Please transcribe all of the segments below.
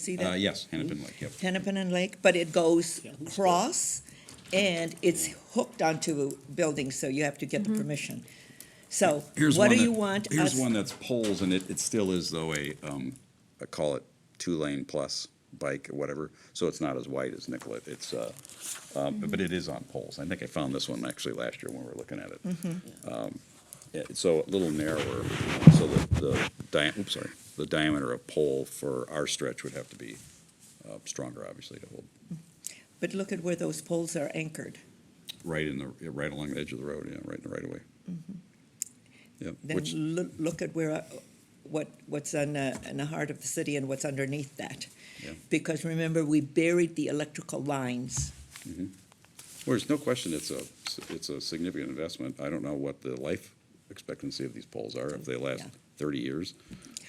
See Uh, that? yes, Hennepin Lake, yep. Hennepin and Lake, but it goes across and it's hooked onto a building, so you have to get the permission. So Here's what one do you that- want us? Here's one that's poles, and it, it still is though a, um, I call it two-lane plus bike or whatever, so it's not as wide as Nicollet, it's, uh, um, but it is on poles. I think I found this one actually last year when we were looking at it. Mm-hmm. Um, yeah, it's so a little narrower, so the, the dia, oops, sorry, the diameter of pole for our stretch would have to be, uh, stronger, obviously, to hold But look at where those poles are anchored. right in the, right along the edge of the road, yeah, right in the right of way. Yep, Mm-hmm. Then which, loo- look at where, uh, what, what's on, uh, in the heart of the city and what's underneath that. Yeah. Because remember, we buried the electrical lines. Well, There's no question it's a, it's a significant investment. I don't know what the life expectancy of these poles are, if they last Yeah. thirty years,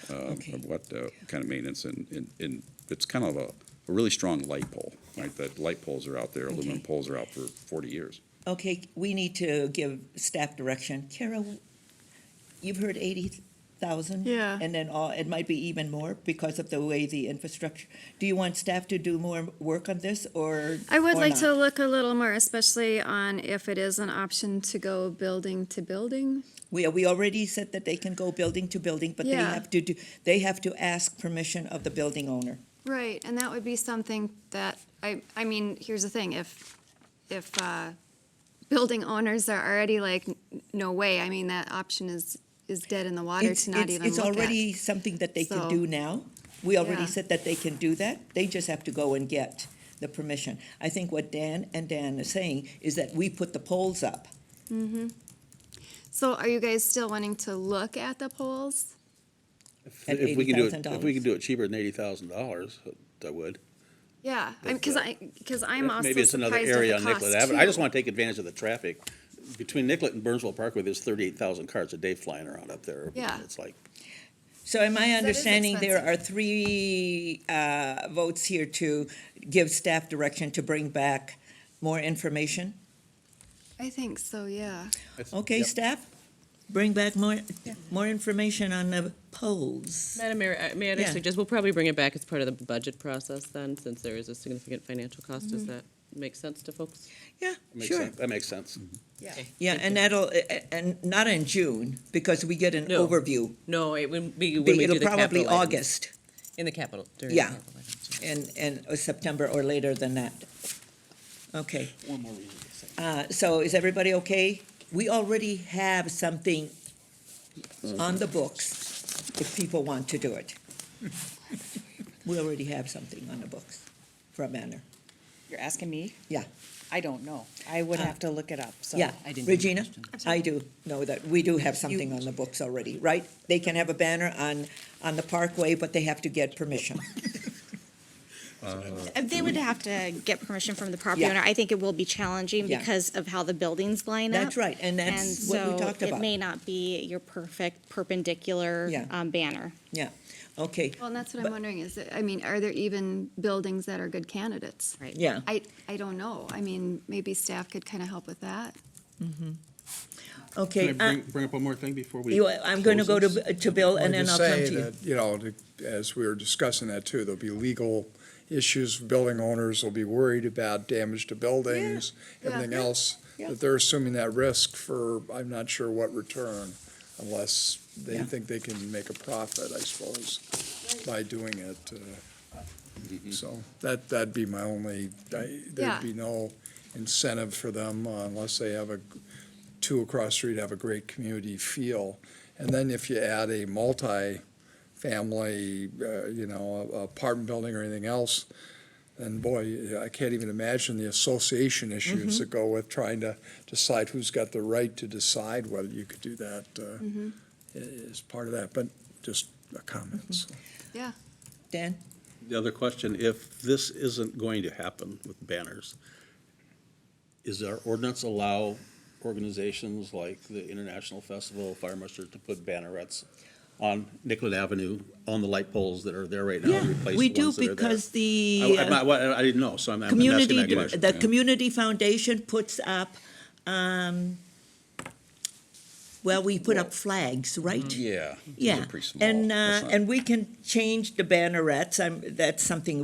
um, Okay. of what uh, kind of maintenance and, and, and it's kind of a, a really strong light pole, right? That light poles are out there, aluminum Okay. poles are out for forty years. Okay, we need to give staff direction. Kara, you've heard eighty thousand? Yeah. And then all, it might be even more because of the way the infrastructure. Do you want staff to do more work on this or? I would or like to not? look a little more, especially on if it is an option to go building to building. We, we already said that they can go building to building, but they Yeah. have to do, they have to ask permission of the building owner. Right, and that would be something that, I, I mean, here's the thing, if, if, uh, building owners are already like, "N- no way, I mean, that option is, is dead in the water It's, to not it's, even it's look already at. something that they can So- do now. We already Yeah. said that they can do that. They just have to go and get the permission. I think what Dan and Dan are saying is that we put the poles up. So are you guys still wanting to look at the polls? At If we could do it, $80,000. if we could do it cheaper than eighty thousand dollars, I would. Yeah, That's because the- I, because I'm also Maybe it's another surprised at area the on Nicollet cost Avenue. I just too. want to take advantage of the traffic. Between Nicollet and Burnsville Parkway, there's thirty-eight thousand cars a day flying around up there. Yeah. It's like, So am I is understanding there are expensive. three uh, votes here to give staff direction to bring back more information? I think so, yeah. Okay, Yep. staff, bring back more, more information on the polls. Madam Mayor, uh, may I Yeah. just suggest, we'll probably bring it back as part of the budget process then, since there is a significant financial cost. Does Mm-hmm. that make sense to folks? Yeah, makes sure. sense. that makes sense. Yeah, and that'll, uh, uh, and not in June, because we get an No. overview. No, it would be when we do It'll the capital probably items. August In the capital. during the Yeah. capital items, yeah. and, and or September or later than that. Okay. One more reason to say. Uh, So is everybody okay? We already have something on the books if people want to do it. We already have something on the books for a banner. You're asking me? Yeah, Uh, I don't know. I would have to look it up, so. yeah. I didn't. Regina, I do know that we do have something on the books already, right? They can have a banner on, on the parkway, but they have to get permission. Uh, They would have to get permission from the property Yeah. owner. I think it will be challenging Yeah. because of how the buildings line up. That's right, and that's what we talked And so about. it may not be your perfect perpendicular Yeah. um, banner. Yeah, okay, Well, and that's what I'm wondering is, that- I mean, are there even buildings that are good candidates? Right. yeah. I, I don't know. I mean, maybe staff could kind of help with that. mm-hmm. Okay, Can I uh, bring, bring up one more thing before we? you- I'm going to go close this? to, to Bill and Wanted then to I'll come say to you. that, You know, to- as we were discussing that too, there'll be legal issues, building owners will be worried about damage to buildings, Yeah, everything yeah, else, yeah. but they're assuming that risk for, I'm not sure what return, unless they Yeah. think they can make a profit, I suppose, by doing it. uh, So that, that'd be my only, I- Yeah. there'd be no incentive for them uh, unless they have a, two across the street have a great community feel. And then if you add a multi-family, uh, you know, a- a apartment building or anything else, then boy, I can't even imagine the association issues that go with trying to decide who's got the right to decide whether you could do that Mm-hmm. uh, i- is part of that, but just a comment. so. Yeah. Dan? The other question, if this isn't going to happen with banners, is our ordinance allow organizations like the International Festival of Fire Muster to put bannerets on Nicollet Avenue, on the light poles that are there right now? and replace We the do ones that are there? because I- the I'm uh, not- well, I didn't know, so I'm I'm asking community, that the question. the community foundation puts up, um, Well, we put up flags, mm, right? Yeah. those are Yeah, pretty small. and, uh, That's not- and we can change the bannerets, I'm, that's something